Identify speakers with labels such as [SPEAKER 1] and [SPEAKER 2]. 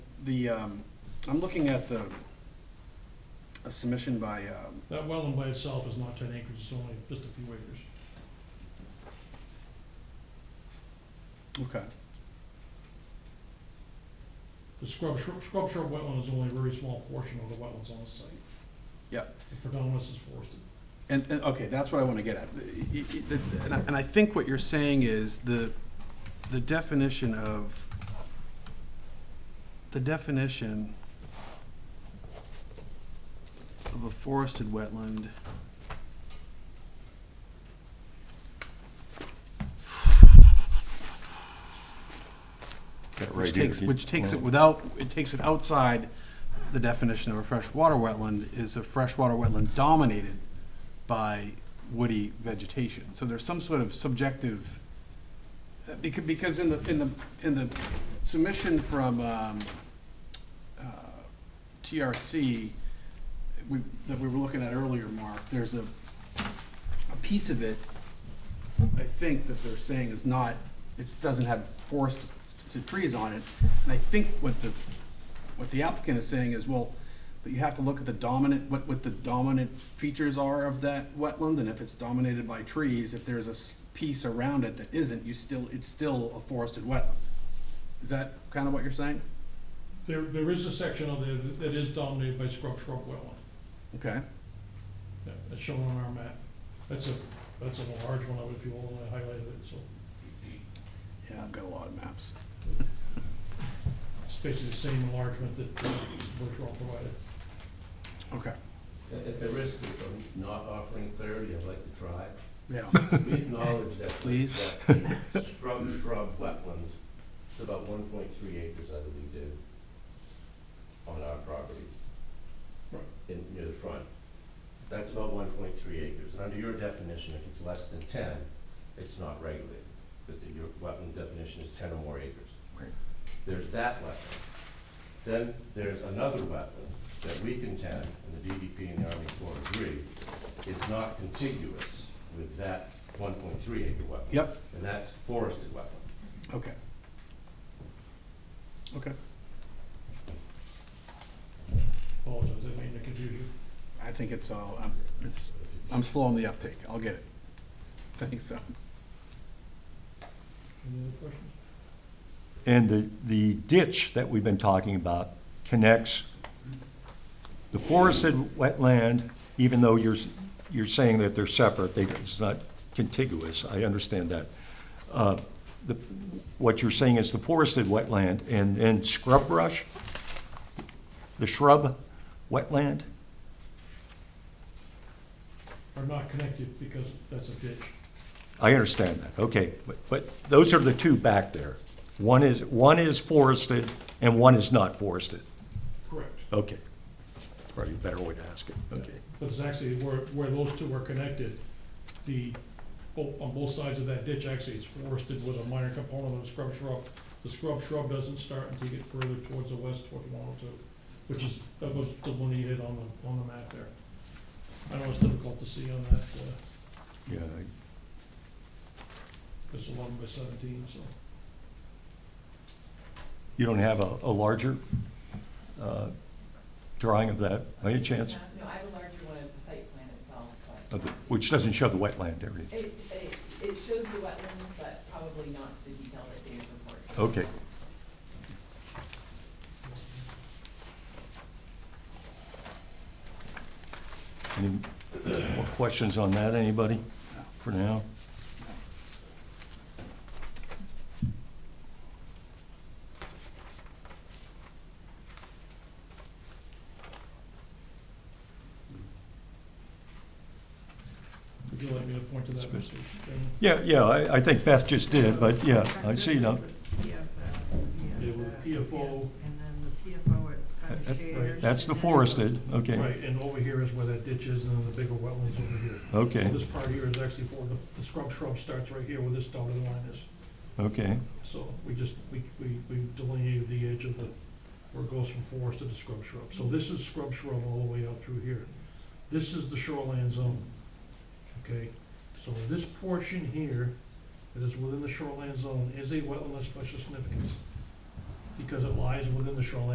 [SPEAKER 1] The, um, I'm looking at the, a submission by, um,
[SPEAKER 2] That wetland by itself is not ten acres, it's only just a few acres.
[SPEAKER 1] okay,
[SPEAKER 2] The scrub shrub, scrub shrub wetland is only a very small portion of the wetlands on the site.
[SPEAKER 1] Yep.
[SPEAKER 2] The predominance is forested.
[SPEAKER 1] and, and, okay, that's what I wanna get at. Y- y- y- the- And I, and I think what you're saying is the, the definition of, the definition of a forested wetland
[SPEAKER 3] Got it right
[SPEAKER 1] Which
[SPEAKER 3] here.
[SPEAKER 1] takes, which takes it without, it takes it outside the definition of a freshwater wetland, is a freshwater wetland dominated by woody vegetation. So there's some sort of subjective, because, because in the, in the, in the submission from, um, uh, TRC, we, that we were looking at earlier, Mark, there's a, a piece of it, I think that they're saying is not, it doesn't have forest to trees on it. And I think what the, what the applicant is saying is, well, but you have to look at the dominant, what, what the dominant features are of that wetland, and if it's dominated by trees, if there's a s- piece around it that isn't, you still, it's still a forested wetland. Is that kind of what you're saying?
[SPEAKER 2] There, there is a section of there that- that is dominated by scrub shrub wetland,
[SPEAKER 1] Okay,
[SPEAKER 2] Yeah, that's shown on our map. That's a, that's a large one, of it, if you will, and I highlighted it, so
[SPEAKER 1] yeah, I've got a lot of maps.
[SPEAKER 2] it's basically the same enlargement that uh, Bergeron provided.
[SPEAKER 1] Okay,
[SPEAKER 4] At at the risk of not offering clarity, I'd like to try.
[SPEAKER 1] yeah,
[SPEAKER 4] We acknowledge that.
[SPEAKER 1] Please.
[SPEAKER 4] that the Scrub, shrub, wetlands, it's about one point three acres, I believe, David, on our property.
[SPEAKER 2] Right.
[SPEAKER 4] In, near the front. That's about one point three acres. And under your definition, if it's less than ten, it's not regulated, because your wetland definition is ten or more acres.
[SPEAKER 1] Right.
[SPEAKER 4] There's that wetland. Then there's another wetland that we contend, and the DEP and the Army Corps agree, is not contiguous with that one point three acre wetland.
[SPEAKER 1] yep,
[SPEAKER 4] And that's forested wetland.
[SPEAKER 1] okay. Okay,
[SPEAKER 2] Apologize, I made a confusion.
[SPEAKER 1] I think it's all, I'm, it's, I'm slow on the uptake, I'll get it. I think so.
[SPEAKER 2] Any other questions?
[SPEAKER 3] And the, the ditch that we've been talking about connects the forested wetland, even though you're, s- you're saying that they're separate, they, it's not contiguous, I understand that. Uh, The, what you're saying is the forested wetland and, and scrub brush? The shrub wetland?
[SPEAKER 2] Are not connected because that's a ditch.
[SPEAKER 3] I understand that, okay, but, but those are the two back there. One is, one is forested and one is not forested.
[SPEAKER 2] Correct.
[SPEAKER 3] Okay. Probably a better way to ask it, okay.
[SPEAKER 2] But it's actually where, where those two are connected, the, bo- on both sides of that ditch, actually, it's forested with a minor component of scrub shrub. The scrub shrub doesn't start until you get further towards the west, towards one oh two, which is, that was delineated on the, on the map there. I know it's difficult to see on that, uh,
[SPEAKER 3] Yeah,
[SPEAKER 2] it's eleven by seventeen, so.
[SPEAKER 3] You don't have a, a larger uh, drawing of that, by any chance?
[SPEAKER 5] No, I have a larger one of the site plan itself,
[SPEAKER 3] Of the-
[SPEAKER 5] but.
[SPEAKER 3] Which doesn't show the wetland area.
[SPEAKER 5] It, it, it shows the wetlands, but probably not to the detail that David reported.
[SPEAKER 3] Okay, any more questions on that, anybody, for now?
[SPEAKER 2] Would you like me to point to that, Mr. Chairman?
[SPEAKER 3] Yeah, yeah, I, I think Beth just did, but yeah, I see now.
[SPEAKER 2] Yeah, with PFO.
[SPEAKER 6] And then the PFO at,
[SPEAKER 3] That-
[SPEAKER 6] at
[SPEAKER 3] that-
[SPEAKER 6] shares.
[SPEAKER 3] That's the forested, okay,
[SPEAKER 2] Right, and over here is where that ditch is, and then the bigger wetlands over here. So
[SPEAKER 3] okay,
[SPEAKER 2] This part here is actually for, the, the scrub shrub starts right here where this dotted line is.
[SPEAKER 3] okay,
[SPEAKER 2] So we just, we, we, we delineated the edge of the, where it goes from forest to the scrub shrub. So this is scrub shrub all the way out through here. This is the shoreline zone, okay? So this portion here that is within the shoreline zone is a wetland of special significance because it lies within the shoreline